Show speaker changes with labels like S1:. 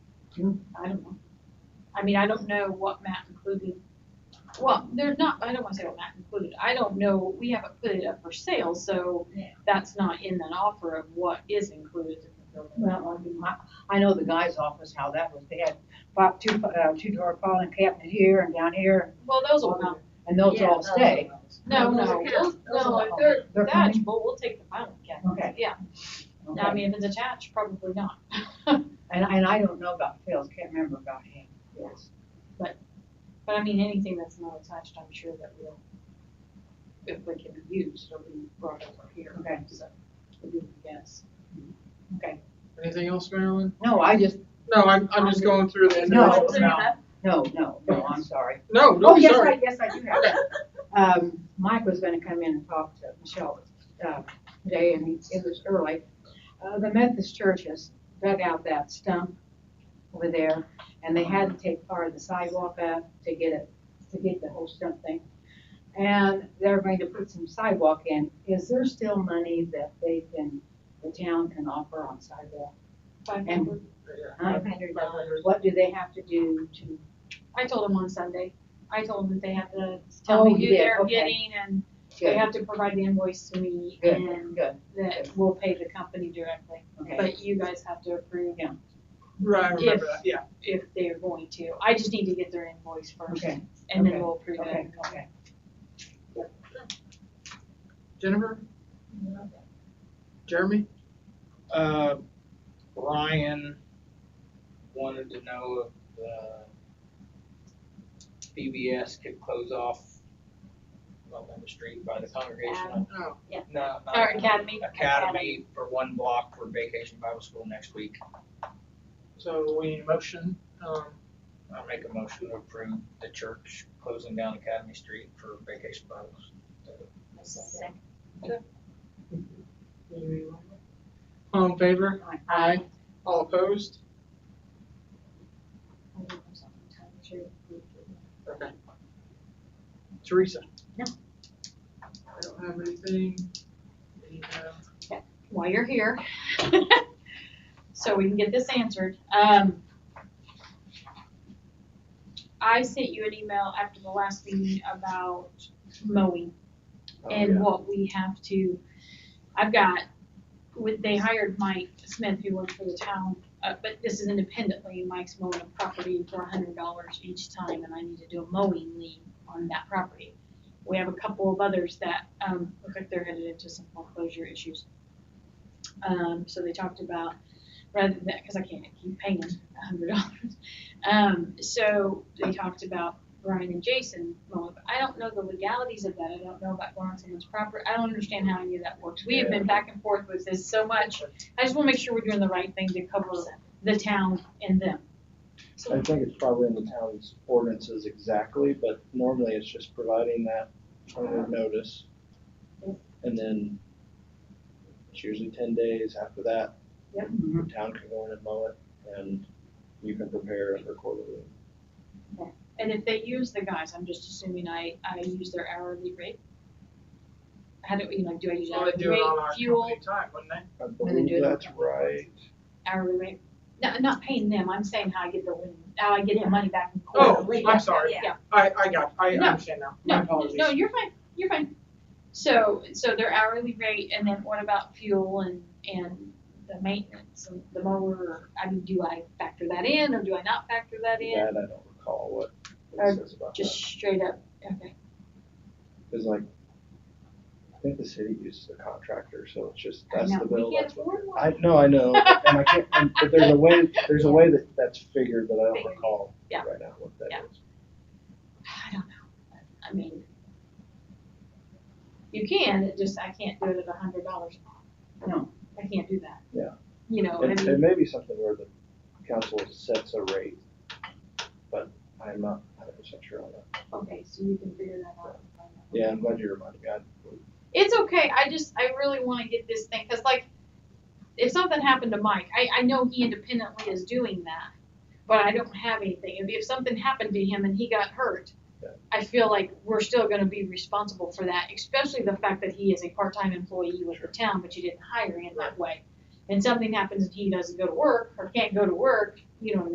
S1: can, I don't know. I mean, I don't know what Matt included. Well, there's not, I don't wanna say what Matt included. I don't know, we haven't put it up for sale, so
S2: Yeah.
S1: that's not in an offer of what is included in the building.
S2: Well, I mean, my, I know the guy's office, how that was, they had pop, two, uh, two-door filing cabinet here and down here,
S1: Well, those will come.
S2: and those
S1: Yeah,
S2: all stay.
S1: No,
S2: Those
S1: no,
S2: are-
S1: those-
S2: those
S1: no,
S2: are-
S1: if they're
S2: they're coming?
S1: attachable, we'll take the filing cabinet.
S2: Okay.
S1: Yeah, I
S2: Okay.
S1: mean, if it's attached, probably not.
S2: And, and I don't know about Phil's, can't remember about him.
S1: Yes. But, but I mean, anything that's not attached, I'm sure that we'll, if we can use, it'll be brought over here.
S2: Okay.
S1: So, it'll be a guess.
S2: Okay.
S3: Anything else, Marilyn?
S2: No, I just,
S3: No, I'm, I'm just going through the
S2: No,
S3: individual
S2: it's
S3: now.
S2: no, no, no, I'm sorry.
S3: No,
S2: Oh,
S3: no,
S2: yes, I,
S3: sorry.
S2: yes, I do have.
S3: Okay,
S2: Um, Mike was gonna come in and talk to Michelle, uh, today, and he- it was early. Uh, the Methodist Church has dug out that stump over there, and they had to take part of the sidewalk up to get it, to get the whole stump thing. And they're going to put some sidewalk in. Is there still money that they can, the town can offer on sidewalk?
S1: Five
S2: And-
S1: hundred.
S2: Five hundred dollars. What do they have to do to,
S1: I told them on Sunday, I told them that they have to tell
S2: Oh,
S1: me
S2: you
S1: who
S2: did,
S1: they're
S2: okay.
S1: getting and they
S2: good,
S1: have to provide the invoice to me
S2: good,
S1: and
S2: good,
S1: that we'll pay the company directly.
S2: okay.
S1: But you guys have to approve
S3: right, I remember
S1: If-
S3: that, yeah.
S1: if they're going to. I just need to get their invoice first
S2: Okay.
S1: and then
S2: okay,
S1: we'll approve
S2: Okay,
S1: it.
S2: okay.
S3: Jennifer? Jeremy?
S4: Uh, Brian wanted to know if, uh, BBS could close off Montgomery Street by the congregation.
S3: No.
S4: No, not
S1: Our academy.
S4: Academy for one block for Vacation Bible School next week.
S3: So we need a motion, um,
S4: I make a motion to approve the church closing down Academy Street for Vacation Bible. School.
S3: all in favor?
S2: Aye.
S3: All opposed? Okay. Teresa?
S2: No.
S3: I don't have anything. uh, We have-
S1: while you're here. So we can get this answered. Um, I sent you an email after the last meeting about mowing and what we have to, I've got, with, they hired Mike Smith, who works for the town, uh, but this is independently, Mike's mowing a property for hundred dollars each time, and I need to do a mowing lien on that property. We have a couple of others that, um, look like they're headed into some foreclosure issues. Um, so they talked about, rather than, because I can't keep paying a hundred dollars. Um, so they talked about Brian and Jason mowing, but I don't know the legalities of that, I don't know about going on someone's property, I don't understand how any of that works. We have been back and forth with this so much, I just wanna make sure we're doing the right thing to cover the town and them.
S5: I think it's probably in the town's ordinances exactly, but normally it's just providing that twenty-day notice. And then it's usually ten days after that, the town can go in and mow it, and you can prepare it for quarterly.
S1: And if they use the guys, I'm just assuming I, I use their hourly rate. How do, you know, do I use
S3: Well,
S1: hourly
S3: they do it on our
S1: rate, fuel,
S3: company time, wouldn't they?
S5: I
S2: they do
S5: believe
S2: it on
S5: that's right.
S1: hourly rate? No, not paying them, I'm saying how I get the, win- how I get the money back in
S3: Oh,
S1: quarterly.
S3: I'm sorry.
S1: Yeah.
S3: I, I got, I
S1: No.
S3: understand now. My
S1: No,
S3: apologies.
S1: no, you're fine, you're fine. So, so their hourly rate, and then what about fuel and, and the maintenance, and the mower, I mean, do I factor that in, or do I not factor that in?
S5: That I don't recall what
S1: Or
S5: it says about
S1: Just
S5: that.
S1: straight up, okay,
S5: Cause like, I think the city uses a contractor, so it's just,
S1: I
S5: that's
S1: know.
S5: the
S1: We
S5: bill,
S1: can't
S5: that's what.
S1: afford one.
S5: I, no, I know, and I can't, and- but there's a way, there's a way that that's figured that I don't
S1: Figured.
S5: recall
S1: Yeah.
S5: right now what that
S1: Yeah.
S5: is.
S1: I don't know, I mean, you can, it just, I can't do it at a hundred dollars a month.
S2: No.
S1: I can't do that.
S5: Yeah.
S1: You know, I
S5: It, it
S1: mean,
S5: may be something where the council sets a rate, but I'm not hundred percent sure on that.
S1: okay, so you can figure that out.
S5: Yeah, I'm glad you reminded me. I,
S1: It's okay, I just, I really wanna get this thing, cause like, if something happened to Mike, I, I know he independently is doing that, but I don't have anything, if, if something happened to him and he got hurt,
S5: Yeah.
S1: I feel like we're still gonna be responsible for that, especially the fact that he is a part-time employee with the town, but you didn't hire him that way. And something happens and he doesn't go to work, or can't go to work, you know what I mean?